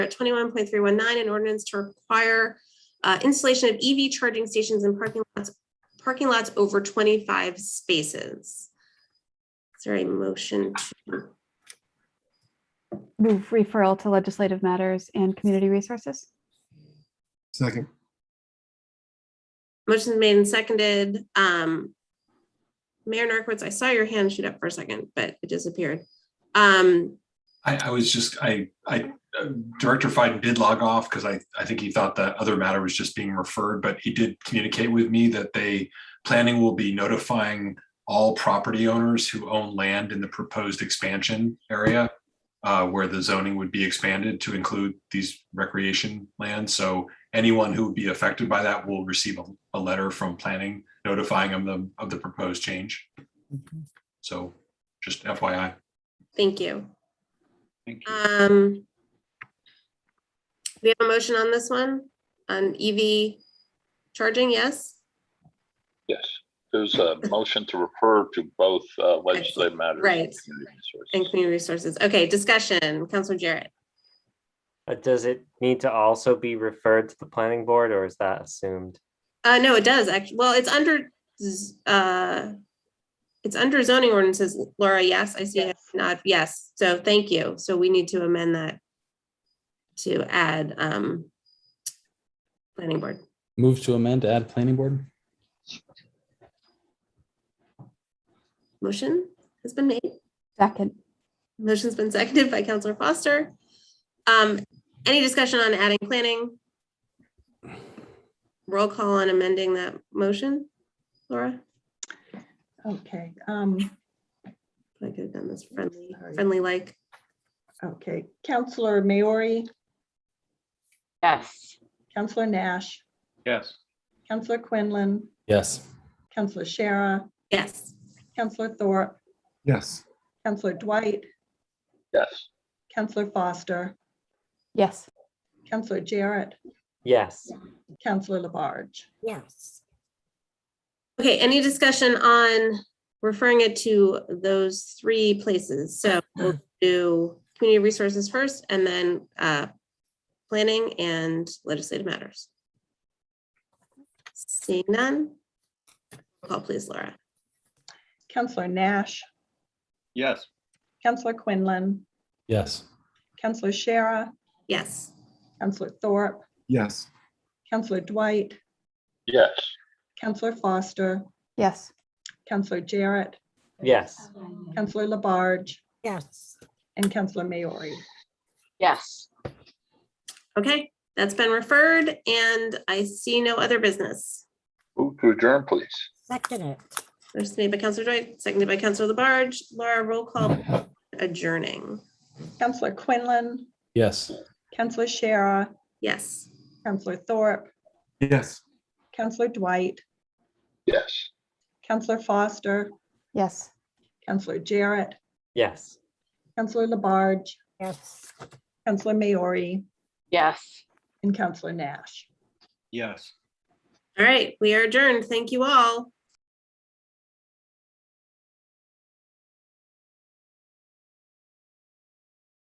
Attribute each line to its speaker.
Speaker 1: twenty-one point three one nine, an ordinance to require uh, installation of EV charging stations in parking lots, parking lots over twenty-five spaces. Is there a motion? to-
Speaker 2: Move referral to legislative matters and community resources.
Speaker 3: Second,
Speaker 1: Motion's made and seconded. Um, Mayor Narcoitz, I saw your hand shoot up for a second, but it disappeared. Um,
Speaker 4: I, I was just, I, I, uh, Director Fiden did log off because I, I think he thought that other matter was just being referred, but he did communicate with me that they, planning will be notifying all property owners who own land in the proposed expansion area uh, where the zoning would be expanded to include these recreation lands. So anyone who would be affected by that will receive a, a letter from planning notifying them of- of the proposed change. So just FYI.
Speaker 1: thank you.
Speaker 4: Thank
Speaker 1: Um, we have a motion on this one, on EV charging, yes?
Speaker 5: Yes, there's a motion to refer to both uh, legislative matters. and
Speaker 1: Right.
Speaker 5: community resources.
Speaker 1: And community resources. Okay, discussion, Counselor Jarrett.
Speaker 6: But does it need to also be referred to the planning board or is that assumed?
Speaker 1: Uh, no, it does actually. Well, it's under, z- uh, it's under zoning ordinances. Laura, yes, I see it. Not, yes. So thank you. So we need to amend that to add, um, planning board.
Speaker 7: Move to amend to add planning board?
Speaker 1: Motion has been made.
Speaker 2: Second,
Speaker 1: Motion's been seconded by Counselor Foster. Um, any discussion on adding planning? Roll call on amending that motion, Laura?
Speaker 8: Okay, um,
Speaker 1: I could have done this friendly,
Speaker 8: Sorry.
Speaker 1: friendly like.
Speaker 8: okay, Counselor Maori,
Speaker 9: Yes,
Speaker 8: Counselor Nash,
Speaker 5: Yes.
Speaker 8: Counselor Quinlan,
Speaker 7: Yes.
Speaker 8: Counselor Shara,
Speaker 1: Yes,
Speaker 8: Counselor Thorpe,
Speaker 3: yes,
Speaker 8: Counselor Dwight,
Speaker 5: Yes,
Speaker 8: Counselor Foster,
Speaker 2: yes,
Speaker 8: Counselor Jarrett,
Speaker 6: Yes,
Speaker 8: Counselor Labarge.
Speaker 1: okay, any discussion on referring it to those three places? So we'll do community resources first and then uh planning and legislative matters. Seeing none. Roll Call please, Laura.
Speaker 8: Counselor Nash. Yes. Counselor Quinlan,
Speaker 7: Yes.
Speaker 8: Counselor Shara,
Speaker 1: Yes,
Speaker 8: Counselor Thorpe,
Speaker 3: yes,
Speaker 8: Counselor Dwight,
Speaker 5: yes,
Speaker 8: Counselor Foster,
Speaker 2: yes,
Speaker 8: Counselor Jarrett,
Speaker 6: yes,
Speaker 8: Counselor Labarge. Yes. And Counselor Maori.
Speaker 9: yes,
Speaker 1: okay, that's been referred and I see no other business.
Speaker 5: move to adjourn, please.
Speaker 1: First made by Counselor Dwight, seconded by Counselor Labarge. Laura, roll call adjourning.
Speaker 8: Counselor Quinlan,
Speaker 7: Yes.
Speaker 8: Counselor Shara,
Speaker 1: Yes.
Speaker 8: Counselor Thorpe,
Speaker 3: yes.
Speaker 8: Counselor Dwight,
Speaker 5: Yes.
Speaker 8: Counselor Foster,
Speaker 2: yes.
Speaker 8: Counselor Jarrett,
Speaker 6: yes.
Speaker 8: Counselor Labarge,
Speaker 9: yes,
Speaker 8: Counselor Maori,
Speaker 9: yes.
Speaker 8: and Counselor Nash.
Speaker 4: Yes.
Speaker 1: All right, we are adjourned. Thank you all.